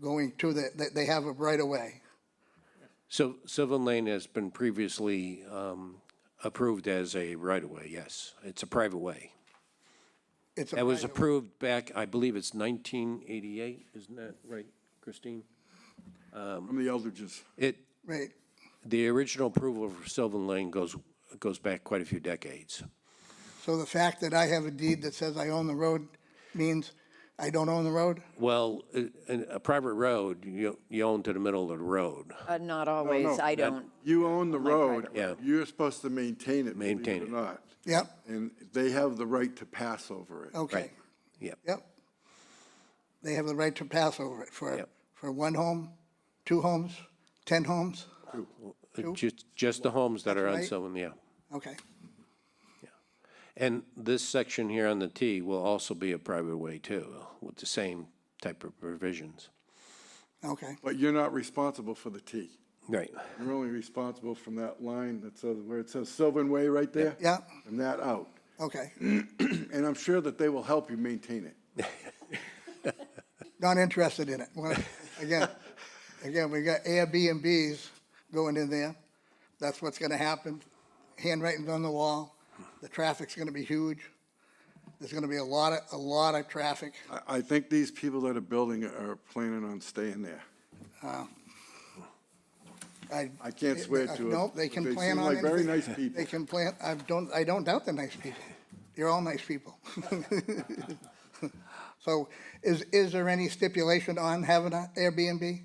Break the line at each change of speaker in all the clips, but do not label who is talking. going to the, that they have a right of way.
So Sylvan Lane has been previously um, approved as a right-of-way, yes. It's a private way.
It's a
That was
private-
approved back, I believe it's 1988, isn't that right, Christine?
From the Eldridges.
It,
Right,
the original approval for Sylvan Lane goes, goes back quite a few decades.
so the fact that I have a deed that says I own the road means I don't own the road?
Well, a, a private road, you, you own to the middle of the road.
Uh, Not always,
no,
I don't.
You own the
Like right
road.
of
Yeah.
You're supposed to maintain it, believe
Maintain
it or
it.
not.
Yep,
And they have the right to pass over it.
okay,
Yep.
yep. They have the right to pass over it for,
Yep.
for one home, two homes, 10 homes,
Just, just the homes that are on
right.
Sylvan, yeah.
okay.
And this section here on the T will also be a private way too, with the same type of provisions.
Okay,
But you're not responsible for the T.
Right.
You're only responsible from that line that says, where it says Sylvan Way right there.
Yeah.
And that out.
okay.
And I'm sure that they will help you maintain it.
Not interested in it. Well, Again, again, we got Airbnbs going in there. That's what's gonna happen. Handwriting's on the wall. The traffic's gonna be huge. There's gonna be a lot of, a lot of traffic.
I, I think these people that are building are planning on staying there. I can't swear to it.
Nope, they can
but
plan on
They seem like very
anything.
nice people.
They can plan, I don't, I don't doubt they're nice people. You're all nice people. So is, is there any stipulation on having an Airbnb?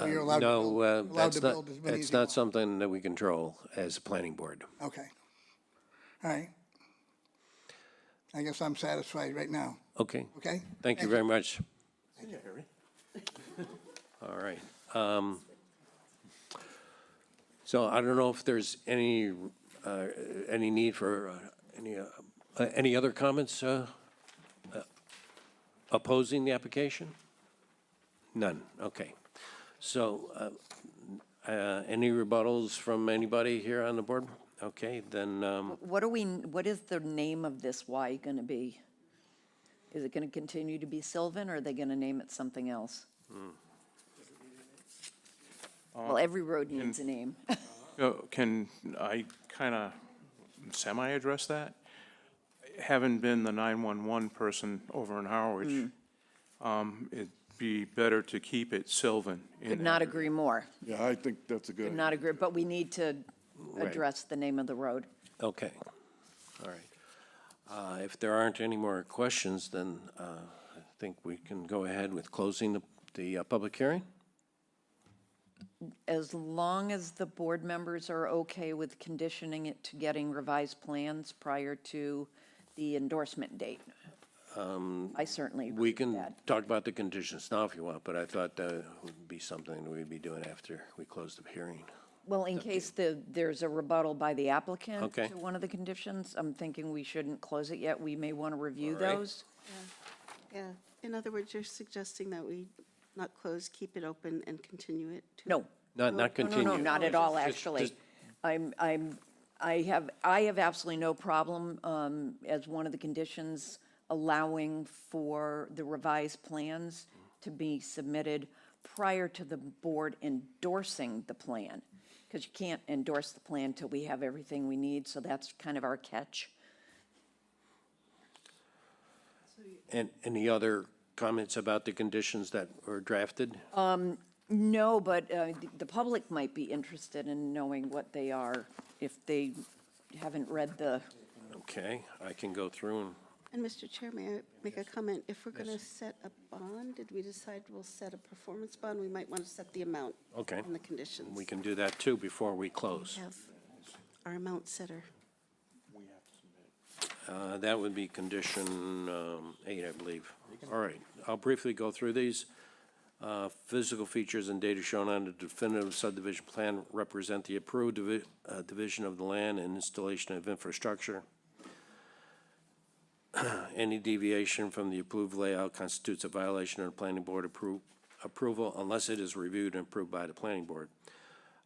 Or You're allowed to
No,
build-
uh,
allowed
that's
to
not,
build as many as
that's
you
not
want.
something that we control as a planning board.
Okay. All right. I guess I'm satisfied right now,
Okay.
okay?
Thank you very much. All right. um, So I don't know if there's any, uh, any need for uh, any, uh, uh, any other comments uh, uh, opposing the application? None, okay. So uh, uh, any rebuttals from anybody here on the board? Okay, then, um,
What are we, what is the name of this Y going to be? Is it going to continue to be Sylvan, or are they going to name it something else? Well, every road needs a name.
Oh, Can I kind of semi-address that? Having been the 911 person over in Harwich, um, it'd be better to keep it Sylvan. in
Could
there.
not agree more,
Yeah, I think that's a good.
could not agree, but we need to address the name of the road.
okay, all right. Uh, If there aren't any more questions, then uh, I think we can go ahead with closing the, the uh, public hearing?
As long as the board members are okay with conditioning it to getting revised plans prior to the endorsement date. I certainly agree
We
with
can
that.
talk about the conditions now if you want, but I thought that would be something that we'd be doing after we close the hearing.
Well, in case the, there's a rebuttal by the applicant
Okay.
to one of the conditions, I'm thinking we shouldn't close it yet. We may want to review
All right.
those.
Yeah, in other words, you're suggesting that we not close, keep it open and continue it to?
No.
Not, not
No,
continue.
No, no, not at all,
Just-
actually.
just-
I'm, I'm, I have, I have absolutely no problem um, as one of the conditions allowing for the revised plans to be submitted prior to the board endorsing the plan. Because you can't endorse the plan till we have everything we need, so that's kind of our catch.
And any other comments about the conditions that were drafted?
Oh. No, but uh, th- the public might be interested in knowing what they are if they haven't read the,
Okay, I can go through and,
And Mr. Chair, may I make a comment? If we're going to set a bond, did we decide we'll set a performance bond? We might want to set the amount.
Okay.
And the conditions.
we can do that too before we close.
Have our amount setter.
Uh, That would be condition um, eight, I believe. All right, I'll briefly go through these. Uh, Physical features and data shown on the definitive subdivision plan represent the approved divi- uh, division of the land and installation of infrastructure. Any deviation from the approved layout constitutes a violation of the planning board appro- approval unless it is reviewed and approved by the planning board.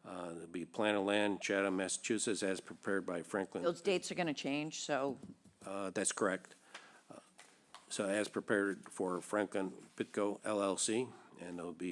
Uh, It'll be plan of land, Chatham, Massachusetts, as prepared by Franklin.
those dates are going to change, so
Uh, That's Uh, correct. So as prepared for Franklin Pitco LLC, and it'll be